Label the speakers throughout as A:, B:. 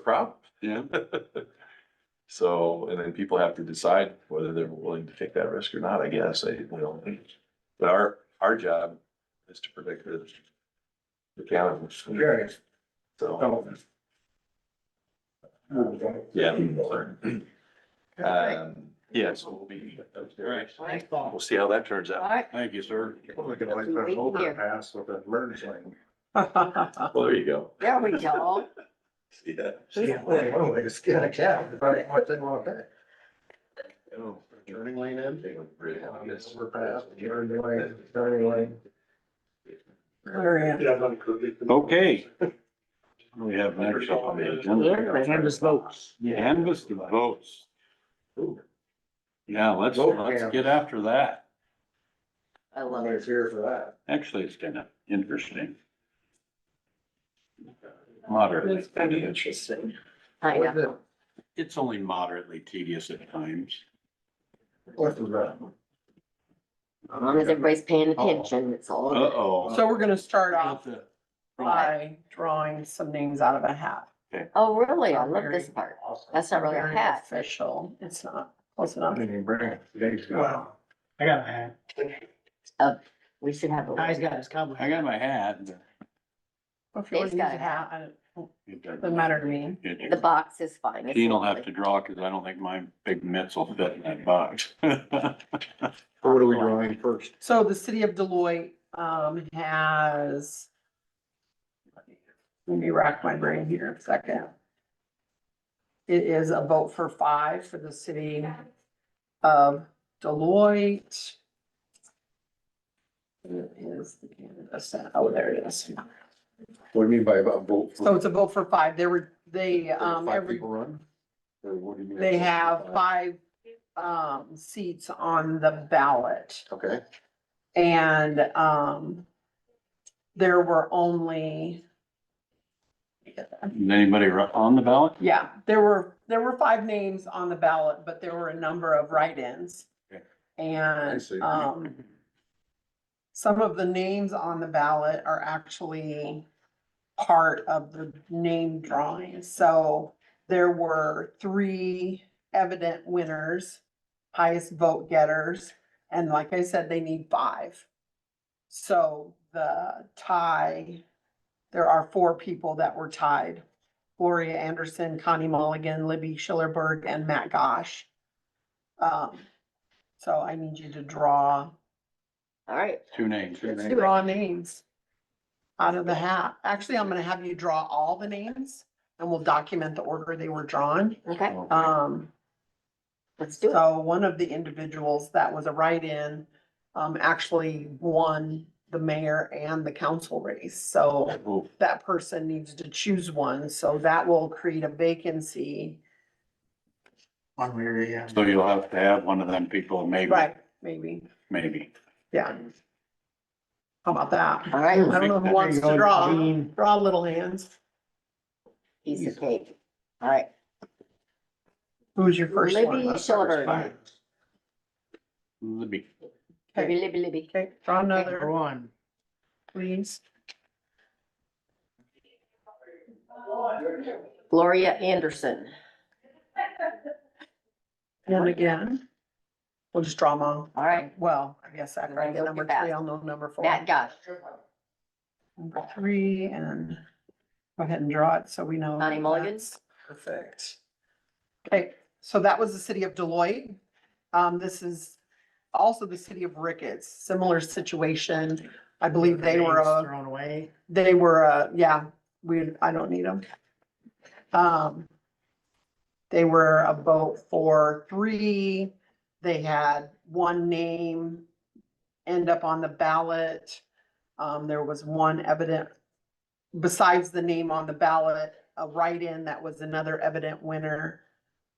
A: problem.
B: Yeah.
A: So, and then people have to decide whether they're willing to take that risk or not, I guess, I, you know. But our, our job is to predict the. The cannabis,
C: Curious.
A: so,
C: Oh. Okay.
A: yeah. we'll learn.
D: Perfect.
A: Um, yeah, so we'll be upstairs.
D: Right.
A: We'll see how that turns out.
D: Right.
B: Thank you, sir.
C: We could always put an overpass with a merge lane.
A: Well, there you go.
D: There we go.
A: See that?
C: Yeah, well, one way to skin a cat, if I want to want that. Oh, Turning lane in. Overpass, turning lane, turning lane.
E: Glorious.
B: Okay. We have next up on the agenda.
E: Canvas votes.
B: Canvas the votes. Yeah, let's,
C: Vote
B: let's
C: count.
B: get after that.
D: I love it.
C: Nobody's here for that.
B: Actually, it's kind of interesting. Moderately,
E: That's kind of
B: tedious.
E: interesting.
D: I know.
B: it's only moderately tedious at times.
C: What's the matter?
D: As long as everybody's paying attention, it's all. good.
B: Uh-oh.
E: So we're gonna start off
B: Right.
E: by drawing some names out of a hat.
D: Oh, really? I love this part. That's not really a
E: Very
D: hat.
E: Official, it's not close enough.
C: Didn't even bring it. Today's gone.
F: I got my hat.
D: We should have.
F: Ty's
D: a
F: got his cowboy.
B: I got my hat. but
E: If you
D: Dave's
E: want to use
D: got
E: a
D: a
E: hat, I don't-
B: it
E: doesn't matter to me.
D: The box is fine. It's
B: Dean will have to
D: lovely.
B: draw, cause I don't think my big mitts will fit in that box.
C: What are we drawing first?
E: So the city of Deloitte, um, has. Let me rack my brain here a second. It is a vote for five for the city of Deloitte. Where is the canvas at? Oh, there it is.
C: What do you mean by about vote? for-
E: So it's a vote for five. There were, they, um,
C: Five
E: every,
C: people run? Or what do you mean?
E: they have five, um, seats on the ballot.
C: Okay,
E: And, um, there were only,
B: Is Anybody ru- on the ballot?
E: yeah, there were, there were five names on the ballot, but there were a number of write-ins.
B: Okay.
E: And,
C: see.
E: um, some of the names on the ballot are actually part of the name drawing. So there were three evident winners, highest vote getters, and like I said, they need five. So the tie, there are four people that were tied. Gloria Anderson, Connie Mulligan, Libby Schillerberg, and Matt Gosh. Um, so I need you to draw
D: All right.
B: Two names.
D: Let's do it.
E: draw names out of the hat. Actually, I'm gonna have you draw all the names and we'll document the order they were drawn.
D: Okay,
A: Oh.
E: Um,
D: let's do it.
E: so one of the individuals that was a write-in, um, actually won the mayor and the council race. So
B: Oh,
E: that person needs to choose one, so that will create a vacancy.
F: One where, yeah.
B: So you'll have to have one of them people, maybe,
E: Maybe,
B: maybe.
E: yeah. How about that?
D: All
E: I
D: right.
E: don't know who wants to draw, draw little hands.
D: Piece of cake. All right.
E: Who's your first one?
D: Libby
E: Let's start with
D: Schillerberg.
E: five.
B: Libby.
D: Libby,
E: Okay,
D: Libby, Libby.
E: okay, draw
F: Number
E: another,
F: one.
E: please.
D: Gloria Anderson.
E: One again. We'll just draw them all.
D: All right.
E: Well, I guess after I
D: Then
E: get
D: go
E: number
D: to Matt.
E: three, I'll know number four.
D: Matt Gosh.
E: Number three and go ahead and draw it so we know.
D: Connie Mulligan.
E: that's Perfect. Okay, so that was the city of Deloitte. Um, this is also the city of Ricketts, similar situation. I believe they were
F: Names
E: a
F: Thrown away.
E: They were, uh, yeah, we, I don't need them. Um, they were a vote for three. They had one name end up on the ballot. Um, there was one evident, besides the name on the ballot, a write-in that was another evident winner.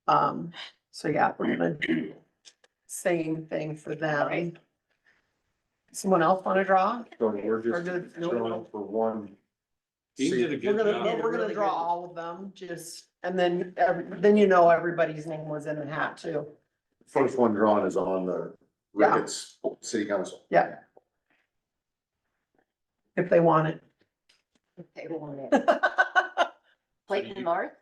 E: Um, so yeah, we're gonna do same thing for them.
D: Alright.
E: Someone else wanna draw?
C: so we're just
E: Or did- no, no.
C: drawing for one.
B: He did a
C: seat.
B: good
E: We're gonna,
B: job.
E: but we're gonna
F: Really
E: draw
F: good.
E: all of them, just, and then, every- then you know everybody's name was in a hat too.
C: First one drawn is on the
E: Yeah.
C: Ricketts City Council.
E: Yeah. If they want
D: They want it.
E: it.
D: Clayton Marth.